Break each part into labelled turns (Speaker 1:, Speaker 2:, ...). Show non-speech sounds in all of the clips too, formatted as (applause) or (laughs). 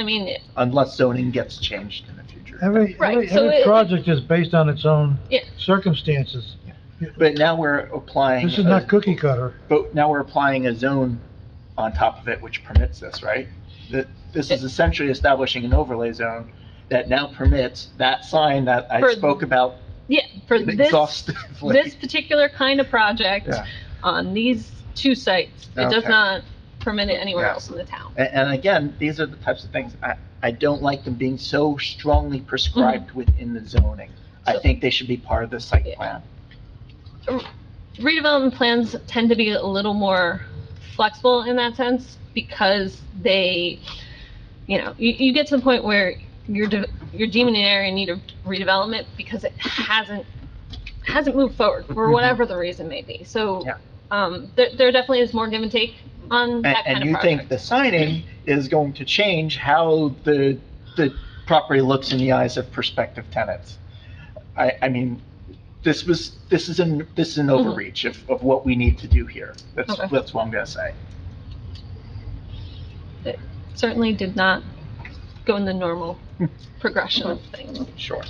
Speaker 1: I mean,
Speaker 2: unless zoning gets changed in the future.
Speaker 3: Every,
Speaker 1: Right,
Speaker 3: every,
Speaker 1: so
Speaker 3: every
Speaker 1: it-
Speaker 3: project is based on its own
Speaker 1: Yeah.
Speaker 3: circumstances.
Speaker 2: But now we're applying.
Speaker 3: This is not
Speaker 2: a-
Speaker 3: cookie cutter.
Speaker 2: But now we're applying a zone on top of it, which permits this, right? That, this is essentially establishing an overlay zone that now permits that sign that I
Speaker 1: For-
Speaker 2: spoke about
Speaker 1: yeah, for this, this
Speaker 2: exhaustively.
Speaker 1: particular kind of project
Speaker 2: Yeah.
Speaker 1: on these two sites, it does
Speaker 2: Okay.
Speaker 1: not permit it anywhere
Speaker 2: Yeah.
Speaker 1: else in the town.
Speaker 2: And, and again, these are the types of things, I, I don't like them being so strongly prescribed within the zoning. I
Speaker 1: Mm-hmm. So-
Speaker 2: think they should be part of the site
Speaker 1: Yeah.
Speaker 2: plan.
Speaker 1: Redevelopment plans tend to be a little more flexible in that sense because they, you know, you, you get to the point where you're, de- you're deeming an area in need of redevelopment because it hasn't, hasn't moved forward for
Speaker 2: Mhm.
Speaker 1: whatever the reason may be. So,
Speaker 2: Yeah.
Speaker 1: um, there, there definitely is more give and take on
Speaker 2: And,
Speaker 1: that kind
Speaker 2: and
Speaker 1: of
Speaker 2: you
Speaker 1: project.
Speaker 2: think the signing is going to change how the, the property looks in the eyes of prospective tenants? I, I mean, this was, this is an, this is an overreach of, of what we need to do here. That's,
Speaker 1: Mm-hmm. Okay.
Speaker 2: that's what I'm gonna say.
Speaker 1: certainly did not go in the normal progression of things.
Speaker 2: Sure.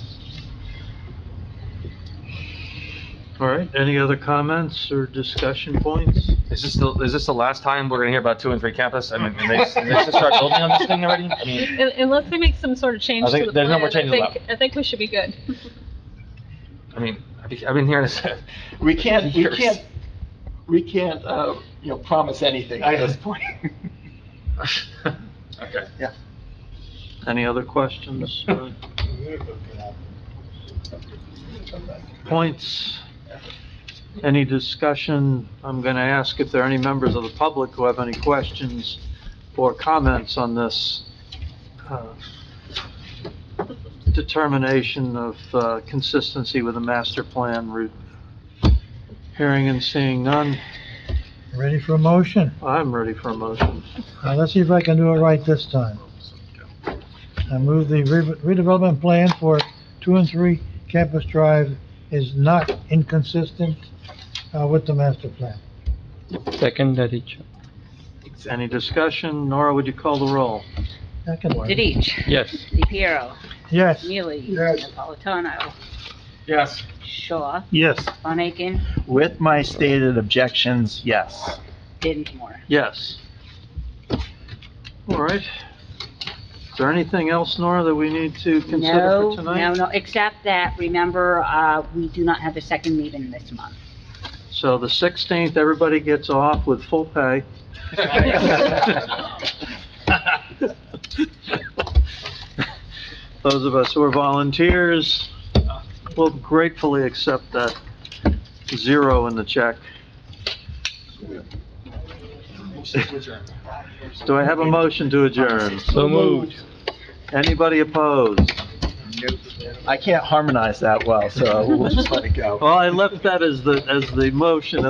Speaker 4: All right, any other comments or discussion points?
Speaker 5: Is this the, is this the last time we're gonna hear about two and three campus? I mean, and they, and they just start building on this thing already? I mean,
Speaker 1: Un- Unless they make some sort of change
Speaker 5: I think
Speaker 1: to the
Speaker 5: there's
Speaker 1: plan,
Speaker 5: no more
Speaker 1: I
Speaker 5: changes
Speaker 1: think, I think we should be good.
Speaker 5: I mean, I've been- I've been hearing this. (laughs)
Speaker 2: We can't, we
Speaker 5: Years.
Speaker 2: can't, we can't, uh, you know, promise anything at this point. (laughs)
Speaker 5: Okay.
Speaker 4: Any
Speaker 3: (laughs)
Speaker 4: other questions? or Points? Any discussion? I'm going to ask if there are any members of the public who have any questions or comments on this uh, determination of uh, consistency with the master plan route. Hearing and seeing none,
Speaker 3: Ready for a motion?
Speaker 4: I'm ready for a motion.
Speaker 3: Now, let's see if I can do it right this time. I move the re- redevelopment plan for two and three Campus Drive is not inconsistent, uh, with the master plan.
Speaker 6: Second, Dadich.
Speaker 4: Any discussion? Nora, would you call the roll?
Speaker 3: That can work.
Speaker 7: Didich,
Speaker 6: Yes.
Speaker 7: DePiero,
Speaker 3: Yes.
Speaker 7: Neely,
Speaker 3: Yes.
Speaker 7: Napolitano,
Speaker 5: Yes.
Speaker 7: Shaw,
Speaker 4: Yes.
Speaker 7: Von Aiken,
Speaker 2: With my stated objections, yes.
Speaker 7: Dinsmore.
Speaker 4: Yes. All right. Is there anything else, Nora, that we need to consider
Speaker 7: No,
Speaker 4: for
Speaker 7: no,
Speaker 4: tonight?
Speaker 7: no, except that, remember, uh, we do not have the second meeting this month.
Speaker 4: So the 16th, everybody gets off with full pay. (laughs) Those of us who are volunteers will gratefully accept that zero in the check. (laughs) Do I have a motion to
Speaker 6: (laughs)
Speaker 4: adjourn?
Speaker 6: So moved.
Speaker 4: Anybody opposed?
Speaker 2: I can't harmonize that well, so we'll just let it go.
Speaker 4: (laughs) Well, I left that as the, as the motion and